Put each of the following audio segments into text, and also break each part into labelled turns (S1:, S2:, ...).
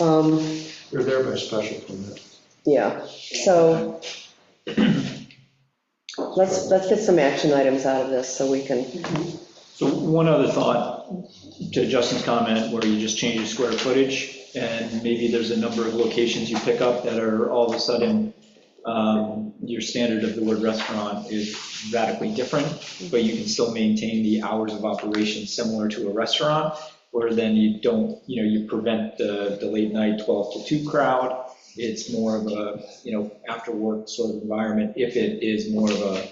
S1: Um,
S2: They're there by special permit.
S1: Yeah, so let's, let's get some action items out of this so we can,
S3: So one other thought to Justin's comment, where you just change the square footage, and maybe there's a number of locations you pick up that are all of a sudden, um, your standard of the word restaurant is radically different, but you can still maintain the hours of operation similar to a restaurant, where then you don't, you know, you prevent the, the late night 12 to 2 crowd. It's more of a, you know, after-work sort of environment, if it is more of a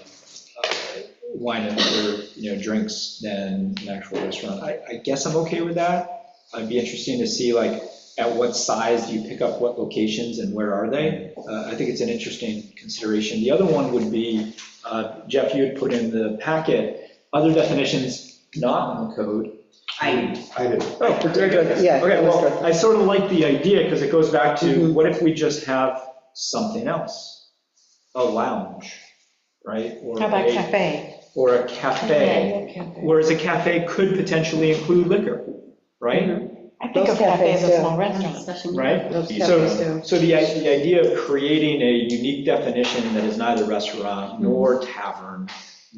S3: uh, wine and other, you know, drinks than an actual restaurant. I, I guess I'm okay with that. I'd be interesting to see like, at what size do you pick up what locations and where are they? Uh, I think it's an interesting consideration. The other one would be, uh, Jeff, you had put in the packet, other definitions not in the code.
S4: I,
S2: I didn't.
S1: Oh, very good. Yeah,
S3: Okay,
S1: that's
S3: well,
S1: good.
S3: I sort of like the idea because it goes back to,
S1: Mhm.
S3: what if we just have something else? A lounge, right? Or
S5: How about
S3: a-
S5: cafe?
S3: Or a cafe. Whereas a cafe could potentially include liquor, right?
S5: I think
S1: Those
S5: of cafe as
S1: cafes,
S5: a small restaurant.
S4: Special.
S3: Right?
S1: Mm-hmm. those cafes
S3: So,
S1: do.
S3: so the, i- the idea of creating a unique definition that is neither restaurant
S1: Mm-hmm.
S3: nor tavern,
S4: Might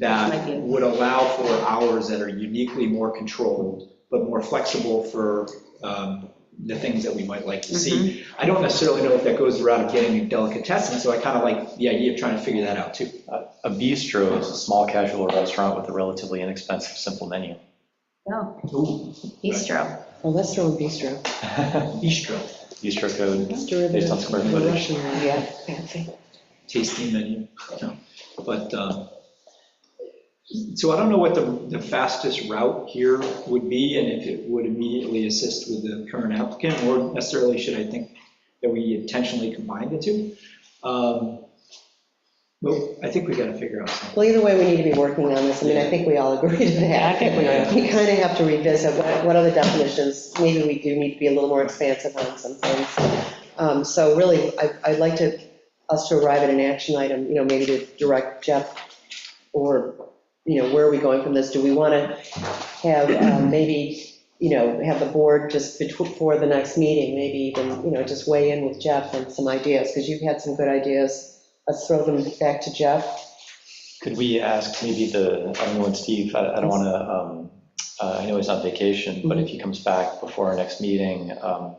S4: be.
S3: that would allow for hours that are uniquely more controlled, but more flexible for um, the things that we might like to see.
S1: Mm-hmm.
S3: I don't necessarily know if that goes the route of getting a delicatessen, so I kind of like the idea of trying to figure that out too.
S6: A bistro is a small casual restaurant with a relatively inexpensive, simple menu.
S4: No,
S3: Ooh,
S4: bistro.
S1: Well, let's throw in bistro.
S3: Bistro,
S6: Bistro code,
S1: It's derivative
S6: Based on square
S1: of
S6: footage.
S1: Russian, Yeah,
S5: Fancy.
S3: tasting menu, no, but, um, so I don't know what the, the fastest route here would be, and if it would immediately assist with the current applicant, or necessarily should I think that we intentionally combine the two? Um, Well, I think we gotta figure out something.
S1: well, either way, we need to be working on this, I mean, I think we all agree to
S5: Yeah,
S1: that.
S5: I think we are.
S1: We kind of have to revisit what, what other definitions, maybe we do need to be a little more expansive on some things. Um, So really, I, I'd like to, us to arrive at an action item, you know, maybe to direct Jeff, or, you know, where are we going from this? Do we want to have, um, maybe, you know, have the board just betw- before the next meeting, maybe even, you know, just weigh in with Jeff and some ideas, because you've had some good ideas. Let's throw them back to Jeff.
S6: could we ask maybe the, I don't know, when Steve, I I don't want to, I know he's on vacation, but if he comes back before our next meeting, um,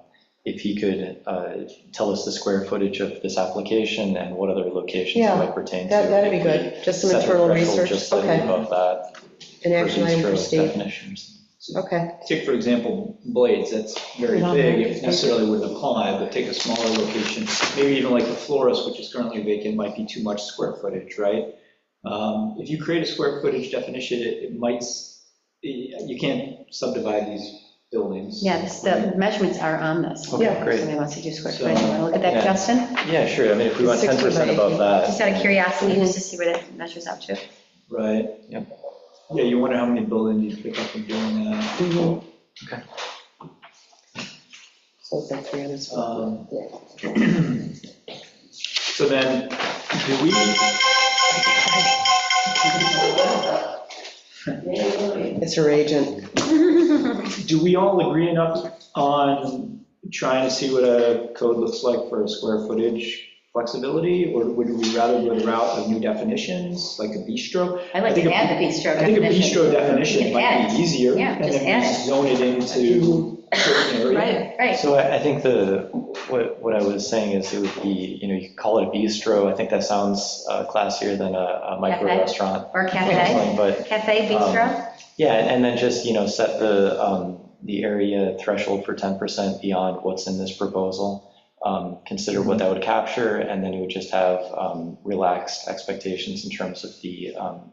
S6: if he could uh, tell us the square footage of this application and what other locations
S1: Yeah,
S6: it might pertain to.
S1: That, that'd be
S6: If we
S1: good, just some
S6: set the
S1: internal
S6: threshold
S1: research,
S6: Just slightly
S1: okay.
S6: above that.
S1: An action item
S6: bistro
S1: for Steve,
S6: definitions.
S1: okay.
S3: Take, for example, Blades, that's very
S5: Not
S3: big,
S5: very
S3: it necessarily wouldn't apply, but take a smaller location, maybe even like the florist, which is currently vacant, might be too much square footage, right? Um, If you create a square footage definition, it it might, s- you can't subdivide these buildings.
S4: Yeah, this- the measurements are on this.
S6: Okay,
S1: Yeah.
S6: great.
S4: Somebody wants to do square
S3: So-
S4: footage. You want to look at that,
S6: Yeah.
S4: Justin?
S6: Yeah, sure, I mean, if we want
S1: 60 by
S6: 10%
S1: 80.
S6: above that.
S4: Just out of curiosity,
S1: Mhm.
S4: just to see where that measures up to.
S3: Right?
S6: Yep.
S3: Yeah, you wonder how many buildings you pick up from doing that.
S1: Mhm.
S6: Okay. Mm-hmm.
S1: So it's like 300 square feet.
S3: Um, So then, do we,
S1: It's her agent.
S3: do we all agree enough on trying to see what a code looks like for a square footage flexibility? Or would we rather go the route of new definitions, like a bistro?
S4: I'd like
S3: I think
S4: to
S3: a-
S4: add the bistro
S3: I think a
S4: definition.
S3: bistro definition might be easier.
S4: Yeah, just
S3: And then
S4: add it.
S3: we zone it into a certain area.
S4: Right, right.
S6: So I I think the, what, what I was saying is it would be, you know, you could call it a bistro. I think that sounds uh, classier than a a micro
S4: Cafe.
S6: restaurant.
S4: Or
S6: or
S4: cafe,
S6: something, But,
S4: cafe, bistro.
S6: yeah, and and then just, you know, set the, um, the area threshold for 10% beyond what's in this proposal. Um, Consider
S4: Mm-hmm.
S6: what that would capture, and then you would just have um, relaxed expectations in terms of the. um,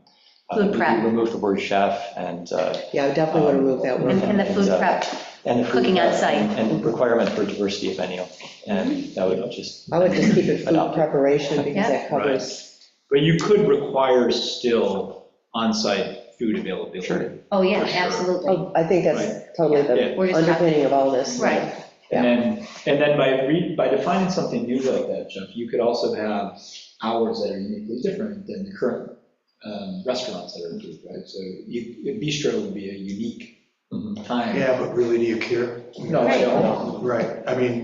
S6: uh,
S4: Food
S6: we-
S4: prep.
S6: we Remove the word chef and, uh,
S1: Yeah, I definitely want to remove
S3: Um,
S1: that
S4: And
S1: word.
S4: and the food prep,
S6: and the food
S4: cooking on
S6: prep,
S4: site. Mm-hmm.
S6: And requirement for diversity of venue, and that would just
S1: I would just keep it food
S6: Adopt it.
S1: preparation because that covers.
S3: But you could require still on-site food availability.
S6: Sure.
S4: Oh, yeah,
S3: For sure.
S4: absolutely.
S1: Oh, I think that's totally
S3: Yeah.
S4: We're
S1: the
S4: just talking-
S1: underpinning of all this.
S4: Right.
S3: And then, and then by re, by defining something new like that, Jeff, you could also have hours that are uniquely different than the current um, restaurants that are approved, right? So you, bistro would be a unique time.
S2: Yeah, but really, do you care?
S3: No, I don't.
S2: Right, I mean,